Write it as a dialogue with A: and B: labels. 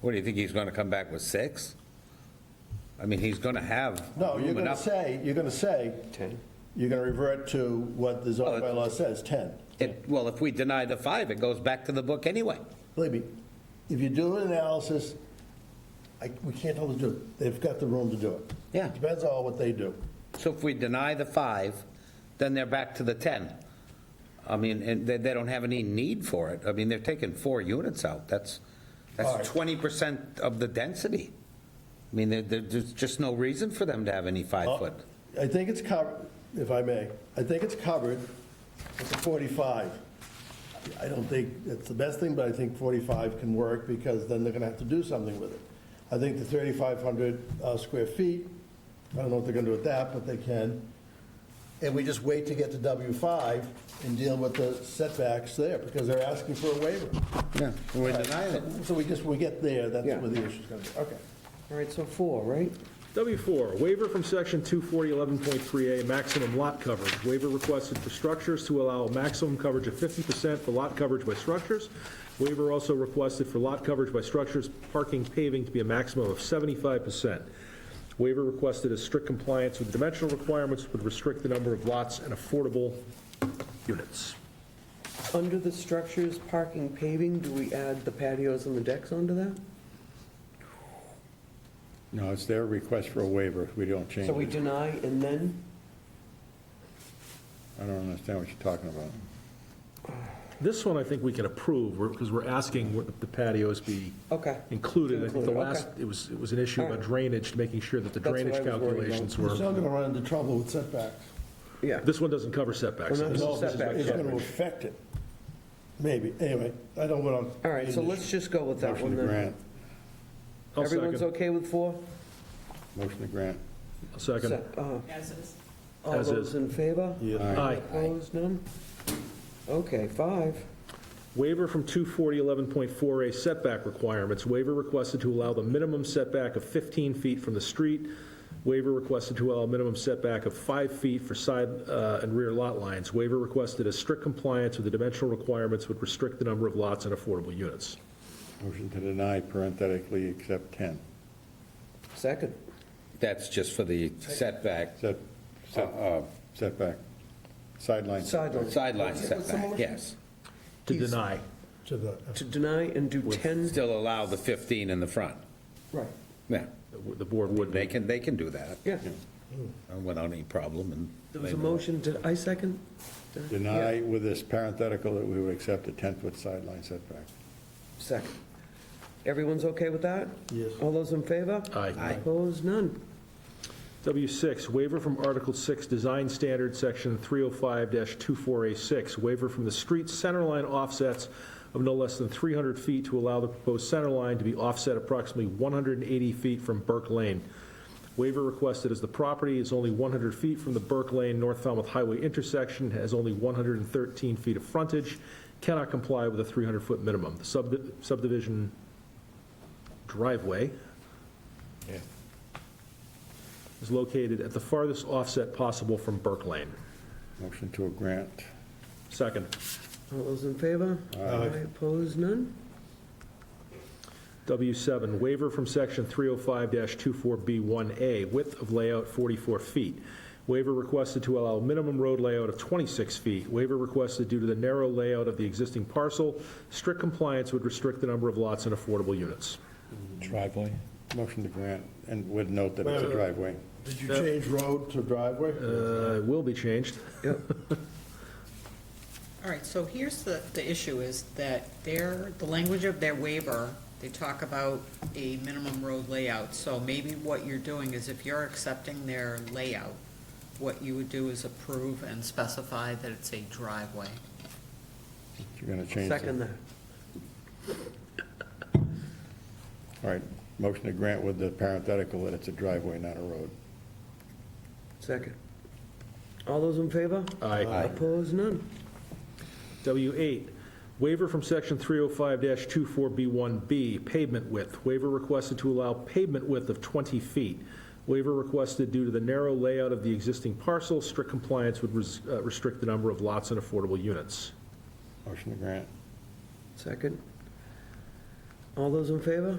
A: What, do you think he's going to come back with six? I mean, he's going to have
B: No,
A: room
B: you're going to
A: enough.
B: say, you're going to say,
C: 10.
B: you're going to revert to what the
A: Oh,
B: zoning
A: it-
B: bylaw says, 10.
A: It- Well, if we deny the five, it goes back to the book anyway.
B: Believe me, if you do an analysis, I, we can't always do it. They've got the room to do it.
A: Yeah.
B: Depends on what they do.
A: So if we deny the five, then they're back to the 10. I mean, and they, they don't have any need for it. I mean, they're taking four units out. That's,
B: All right.
A: that's 20% of the density. I mean, there, there- there's just no reason for them to have any
B: Oh.
A: five-foot.
B: I think it's covered, if I may, I think it's covered with the 45. I don't think it's the best thing, but I think 45 can work because then they're going to have to do something with it. I think the 3,500 uh, square feet, I don't know what they're going to do with that, but they can. And we just wait to get to W5 and deal with the setbacks there because they're asking for a waiver.
A: Yeah, we're denying it.
B: So we just, we get there, that's
C: Yeah.
B: where the issue's going to be. Okay.
C: All right, so four, right?
D: W4, waiver from section 24011.3A, maximum lot coverage. Waiver requested for structures to allow maximum coverage of 50% for lot coverage by structures. Waiver also requested for lot coverage by structures, parking, paving to be a maximum of 75%. Waiver requested is strict compliance with dimensional requirements would restrict the number of lots and affordable units.
C: Under the structures, parking, paving, do we add the patios and the decks onto that?
E: No, it's their request for a waiver if we don't change
C: So we
E: it.
C: deny and then?
E: I don't understand what you're talking about.
D: This one, I think we can approve, because we're asking what the patios be
C: Okay.
D: included. I think the
C: Included,
D: last,
C: okay.
D: it was, it was an issue about
C: Alright.
D: drainage, making sure that the
C: That's what I
D: drainage
C: was worried about.
D: calculations
B: You're
D: were,
B: still going to run into trouble with setbacks.
C: Yeah.
D: this one doesn't cover setbacks.
C: Well, no,
D: This
C: no
D: is- this is
C: setback.
D: my
B: It's going to
D: coverage.
B: affect it, maybe. Anyway, I don't want to.
C: All right, so let's just go with that
E: Motion
C: one
E: to
C: then.
E: grant,
D: I'll
C: Everyone's
D: second.
C: okay with four?
E: motion to grant.
D: I'll Second.
C: Se- uh,
F: As is.
C: All
D: As is.
C: those in favor?
D: Aye.
C: Opposed, none? Okay, five.
D: Waiver from 24011.4A setback requirements. Waiver requested to allow the minimum setback of 15 feet from the street. Waiver requested to allow a minimum setback of 5 feet for side uh, and rear lot lines. Waiver requested a strict compliance with the dimensional requirements would restrict the number of lots and affordable units.
E: Motion to deny parenthetically except 10.
C: Second.
A: That's just for the setback,
E: Set, set- setback, sideline.
C: Sideline.
A: sideline
C: What's the motion?
A: setback, yes.
D: To
C: He's-
D: deny.
B: To the,
C: To deny and do 10,
A: Still allow the 15 in the front.
C: right,
A: Yeah,
D: The board would
A: they can, they can do that
C: yeah.
A: uh, without any problem and.
C: There was a motion, did I second?
E: Deny with this parenthetical that we would accept a 10-foot sideline setback.
C: Second. Everyone's okay with that?
B: Yes.
C: All those in favor?
D: Aye. Aye.
C: Opposed, none.
D: W6, waiver from Article 6, Design Standard, Section 305-24A6, waiver from the street centerline offsets of no less than 300 feet to allow the proposed centerline to be offset approximately 180 feet from Burke Lane. Waiver requested as the property is only 100 feet from the Burke Lane North Falmouth Highway intersection, has only 113 feet of frontage, cannot comply with a 300-foot minimum. The subdi- subdivision driveway is located at the farthest offset possible from Burke Lane.
E: Motion to a grant.
D: Second.
C: All those in favor? Aye. Opposed, none.
D: W7, waiver from section 305-24B1A, width of layout 44 feet. Waiver requested to allow minimum road layout of 26 feet. Waiver requested due to the narrow layout of the existing parcel. Strict compliance would restrict the number of lots and affordable units.
E: Driveway? Motion to grant, and would note that it's a driveway.
B: did you change road to driveway?
D: Uh, Will be changed.
F: All right, so here's the, the issue is that their, the language of their waiver, they talk about a minimum road layout. So maybe what you're doing is if you're accepting their layout, what you would do is approve and specify that it's a driveway.
E: You're going to change. the-
C: Second that.
E: All right, motion to grant with the parenthetical that it's a driveway, not a road.
C: Second. All those in favor?
D: Aye.
C: Opposed, none.
D: W8, waiver from section 305-24B1B, pavement width. Waiver requested to allow pavement width of 20 feet. Waiver requested due to the narrow layout of the existing parcel. Strict compliance would res- uh, restrict the number of lots and affordable units.
E: Motion to grant.
C: Second. Uh, All those in favor?